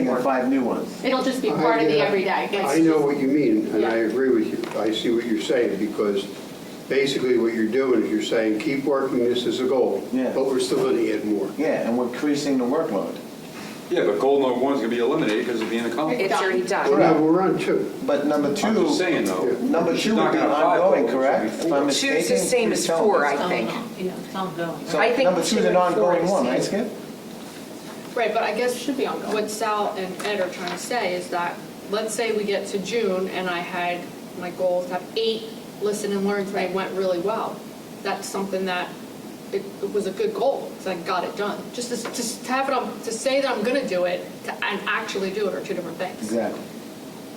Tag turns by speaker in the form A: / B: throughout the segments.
A: and
B: work.
A: five new ones.
B: It'll just be
C: I-
B: part of the
C: yeah.
B: everyday.
C: I know what you mean, and I
B: Yeah.
C: agree with you. I see what you're saying, because basically what you're doing is you're saying, keep working this as a goal.
A: Yeah.
C: But we're still going to add more.
A: Yeah, and we're increasing the workload.
D: Yeah, but goal number one's gonna be eliminated because of being a company.
E: It's already
C: Well,
E: done.
C: now, we're on two.
A: But number 2
D: I'm just saying though.
A: Number
D: she's
A: two would
D: knocking
A: be
D: out five
A: ongoing,
D: goals.
A: correct? If I'm
E: Two's the
A: mistaken,
E: same as
A: you're telling
E: four,
A: us.
E: I think.
F: Yeah, Um, it's ongoing.
A: So
E: I think
A: number two is
E: two
A: an
E: and four
A: ongoing
E: is
A: one, right,
E: same.
A: Skip?
G: Right, but I guess
B: Should be ongoing.
G: what Sal and Ed are trying to say is that, let's say we get to June and I had, my goal is to have eight listen and learns and they went really well. That's something that, it it was a good goal, because I got it done. Just to, just to have it on, to say that I'm gonna do it, to, and actually do it are two different things.
A: Exactly.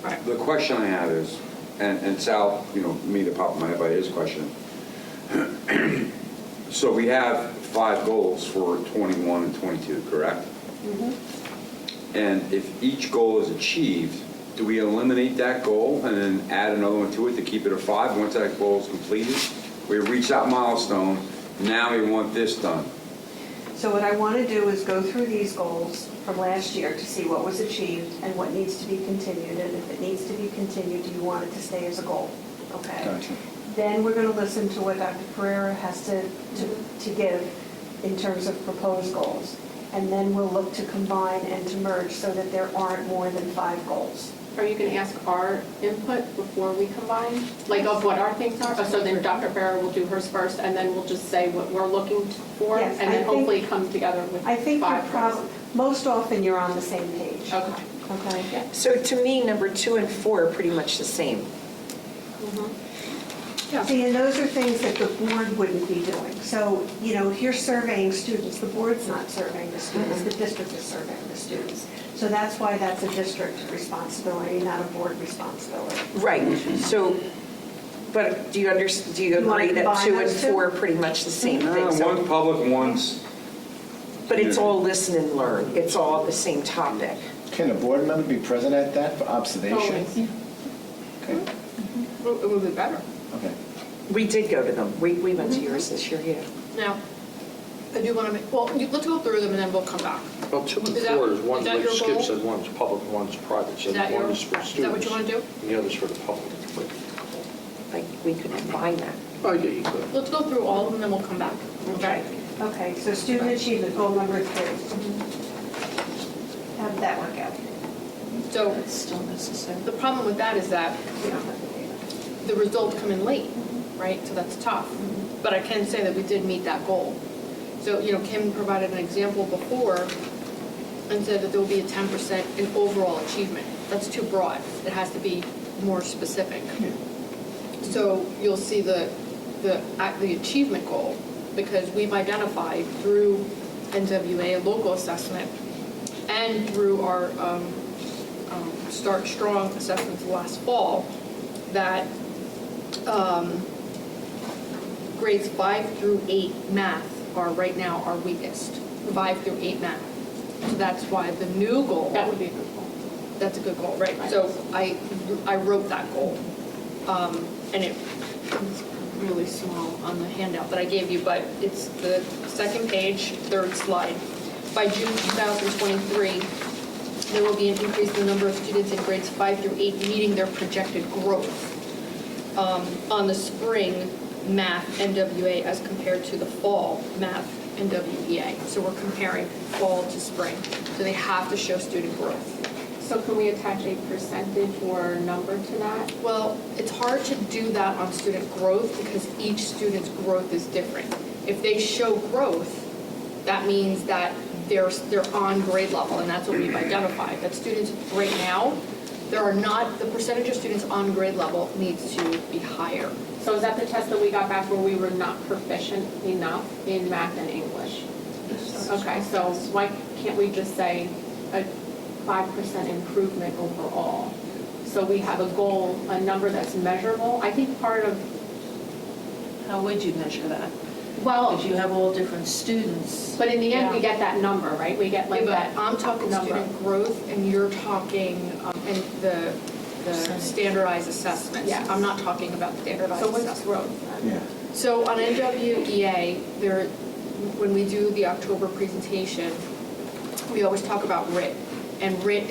G: Right.
D: The question I have is, and, and Sal, you know, me to pop in my head by his question. So we have five goals for 21 and 22, correct? And if each goal is achieved, do we eliminate that goal and then add another one to it to keep it at five? Once that goal is completed, we reach that milestone, now we want this done.
H: So what I want to do is go through these goals from last year to see what was achieved and what needs to be continued, and if it needs to be continued, do you want it to stay as a goal? Okay?
A: Gotcha.
H: Then we're going to listen to what Dr. Pereira has to, to to give in terms of proposed goals. And then we'll look to combine and to merge so that there aren't more than five goals.
B: Are you going to ask our input before we combine, like of what our things are? So then Dr. Farah will do hers first, and then we'll just say what we're looking for,
H: Yes,
B: and
H: I
B: then
H: think-
B: hopefully come together with
H: I think you're
B: five
H: prob,
B: goals.
H: most often you're on the same page.
B: Okay.
H: Okay?
E: So to me, number two and four are pretty much the same.
H: See, and those are things that the board wouldn't be doing. So, you know, if you're surveying students, the board's not surveying the students, the district is surveying the students. So that's why that's a district responsibility, not a board responsibility.
E: Right, so, but do you under, do you
H: You wanna
E: agree that
H: combine
E: two and
H: those two?
E: four are pretty much the same
D: Uh,
E: thing? So-
D: One's public, one's
E: But it's all listen and learn, it's all the same topic.
A: Can a board member be present at that for observation?
B: Always.
A: Okay,
G: It would- It would be better.
A: okay.
E: We did go to them, we, we went to
H: Mm-hmm.
E: yours this year, yeah.
G: Now, I do wanna make, well, you- let's go through them and then we'll come back.
I: Well, two and
G: Is that-
I: four is
G: is
I: one,
G: that
I: like
G: your
I: Skip
G: goal?
I: said, one's public, one's private, so
G: Is that your-
I: one is for
G: is that what
I: students.
G: you wanna do?
I: And the other's for the public.
E: Like, we could combine that.
I: Oh, yeah, you could.
G: Let's go through all of them and then we'll come back, okay?
H: Okay, so student achievement, goal number three. How did that work out?
G: So
F: It's still necessary.
G: the problem with that is that
H: We don't have the data.
G: the results come in late, right? So that's tough. But I can say that we did meet that goal. So, you know, Kim provided an example before and said that there will be a 10% in overall achievement. That's too broad. It has to be more specific. So you'll see the, the, at the achievement goal, because we've identified through NWA local assessment and through our um, um, Start Strong assessments last fall, that um, grades five through eight math are right now our weakest, five through eight math. So that's why the new goal.
B: That would be a good goal.
G: That's a good goal, right? So I, I wrote that goal. Um, And it was really small on the handout that I gave you, but it's the second page, third slide. By June 2023, there will be an increase in the number of students in grades five through eight meeting their projected growth um, on the spring math NWA as compared to the fall math NWEA. So we're comparing fall to spring. So they have to show student growth.
B: So can we attach a percentage or number to that?
G: Well, it's hard to do that on student growth because each student's growth is different. If they show growth, that means that they're, they're on grade level, and that's what we've identified, that students right now, there are not, the percentage of students on grade level needs to be higher.
B: So is that the test that we got back where we were not proficient enough in math and English? Okay, so why can't we just say a five percent improvement overall? So we have a goal, a number that's measurable. I think part of,
F: How would you measure that?
B: well,
F: If you have all different students.
B: but in the end, we get that number, right? We get like
G: But
B: that.
G: I'm talking
B: number.
G: student growth, and you're talking, um, and the, the
F: Percentage.
G: standardized assessments.
B: Yes.
G: I'm not talking about standardized
B: So
G: assessments.
B: what's growth?
A: Yeah.
G: So on NWEA, there, when we do the October presentation, we always talk about RIT. And RIT